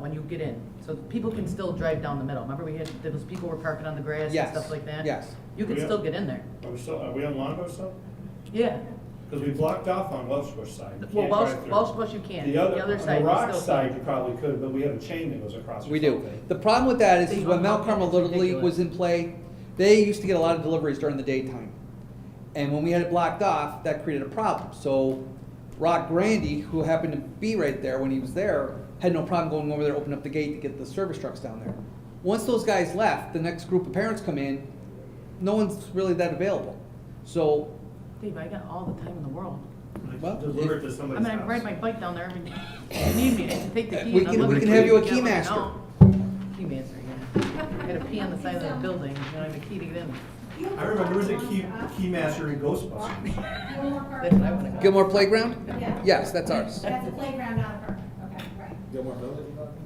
when you get in, so people can still drive down the middle. Remember we had, those people were parking on the grass and Yes, stuff like that? yes. You can Yeah. still get in there. Are we still, are we on Longboat still? Yeah. Because we blocked off on Welsh Bush side. You Well, can't Welsh, drive through. Welsh Bush you can. The other, side. on the you rock still side, can. you probably could, but we have a chain that goes across. or We do. something. The problem with that is, They is when Mount unlock it, Carmel it's Little League ridiculous. was in play, they used to get a lot of deliveries during the daytime. And when we had it blocked off, that created a problem. So Rock Grandy, who happened to be right there when he was there, had no problem going over there, opening up the gate to get the service trucks down there. Once those guys left, the next group of parents come in, no one's really that available. So, Dave, I got all the time in the world. Well, Deliver it to I somebody's mean, I house. ride my bike down there every day. If you need me, I can take the key. We and can- unlock we it can for have you you if a key let me master. know. Key master, yeah. I got a key on the side of the building, you know, I have a key to get in. I remember it was a key, key master in Ghostbusters. That's what I wanna go. Gilmore Playground? Yeah. Yes, that's ours. That's a playground, not a park, okay, right. Gilmore Village?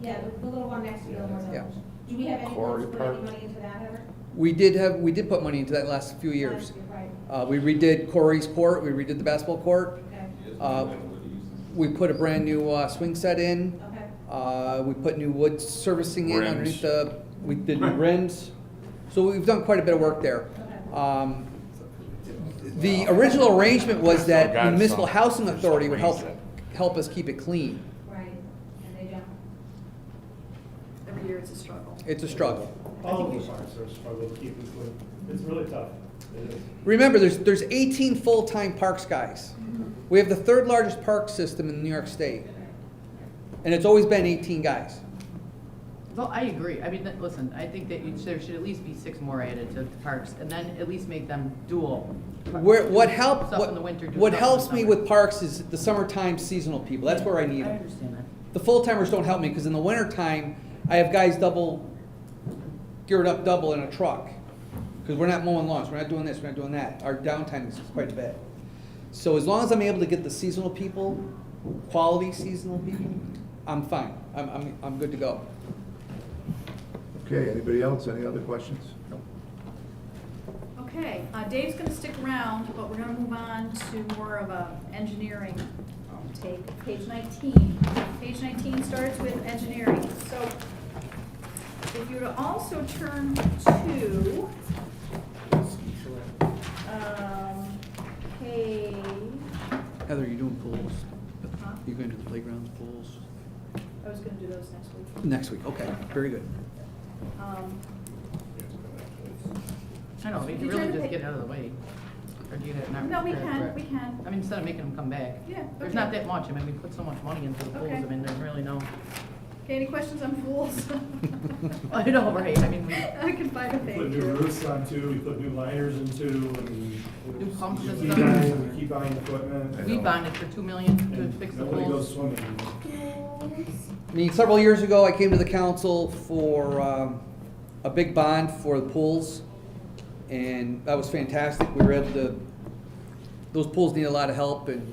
Yeah, the, the little one next to Gilmore Yeah. Village. Do we have any plans Quarry to put Park. any money into that ever? We did have, we did put money into that last few years. Right, Uh, we redid Corey's court, we redid the basketball court, okay, Uh, we put a brand new, uh, swing set in, okay. uh, we put new wood servicing in Rims. underneath the, we did new rims. So we've done quite a bit of work there. Um, the original arrangement was that the municipal housing authority would help, help us keep it clean. Right, and they don't. Every year it's a struggle. It's a struggle. All of the parks are struggling to keep it clean. It's really tough. It is. Remember, there's, there's 18 full-time parks guys. We have the third largest park system in New York State. And it's always been 18 guys. Well, I agree. I mean, that- listen, I think that you- there should at least be six more added to the parks, and then at least make them dual. Where, what help, Stuff in what, the winter, do stuff in what the helps me summer. with parks is the summertime seasonal people, that's where I need I them. understand that. The full-timers don't help me, because in the wintertime, I have guys double, geared up double in a truck. Because we're not mowing lawns, we're not doing this, we're not doing that, our downtime is quite a bit. So as long as I'm able to get the seasonal people, quality seasonal people, I'm fine, I'm, I'm, I'm good to go. Okay, anybody else, any other questions? Okay, uh, Dave's gonna stick around, but we're gonna move on to more of a engineering um, take. Page nineteen, page nineteen starts with engineering, so if you would also turn to, um, page, Heather, you doing pools? Huh? You going to the playgrounds, pools? I was gonna do those next week. Next week, okay, very good. Um, I know, we Did can you really ever just think- get out of the way. Or do you have not? No, we prepared for can, it? we I can, mean, instead of making them come back. yeah. There's okay. not that much. I mean, we put so much money into the pools. I Okay. mean, there's really no, Okay, any questions on pools? I know, right? I mean, we- I can find a We page. Put new here. roofs on too, we put new liners in too, and. New pump we keep systems. buying- We keep buying equipment. we bonded for two million to and fix the Nobody goes pools. swimming. I mean, several years ago, I came to the council for um, a big bond for the pools, and that was fantastic. We were able to, those pools need a lot of help, and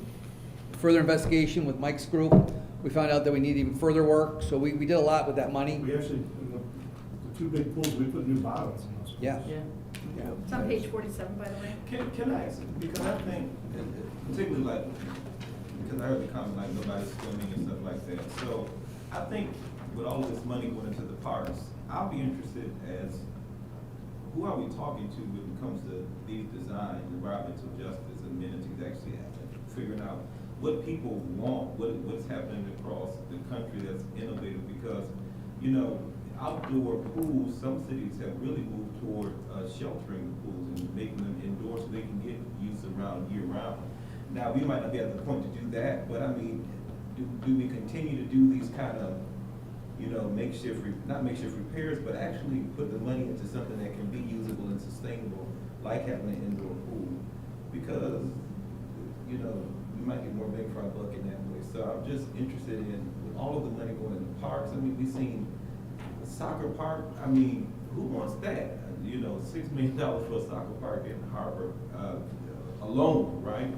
further investigation with Mike's group, we found out that we need even further work, so we, we did a lot with that money. We actually, in the, the two big pools, we put new bottles in those. pools. Yeah. Yeah. Yeah. It's on page forty-seven, by the way. Can, can I ask, because I think, and- and particularly like, because I heard the comment like nobody's swimming and stuff like that. So I think with all this money going into the parks, I'll be interested as, who are we talking to when it comes to these design, environmental justice amenities actually happening? Figuring out what people want, what, what's happening across the country that's innovative, because, you know, outdoor pools, some cities have really moved toward uh, sheltering the pools and making them indoors so they can get used around year round. Now, we might not be at the point to do that, but I mean, do, do we continue to do these kind of, you know, makeshift, re- not makeshift repairs, but actually put the money into something that can be usable and sustainable, like having an indoor pool? Because, you know, we might get more bang for our buck in that way. So I'm just interested in, with all of the money going into parks, I mean, we've seen a soccer park, I mean, who wants that? You know, six million dollars for a soccer park in Harbor, uh, alone, right?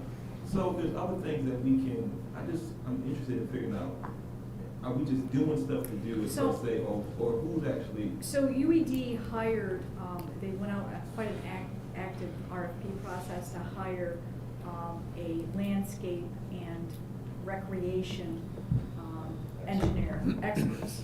So there's other things that we can, I just, I'm interested in figuring out, are we just doing stuff to do it, So- so say, or, or who's actually? So UED hired, um, they went out, uh, quite an act, active RFP process to hire, um, a landscape and recreation, um, engineer experts.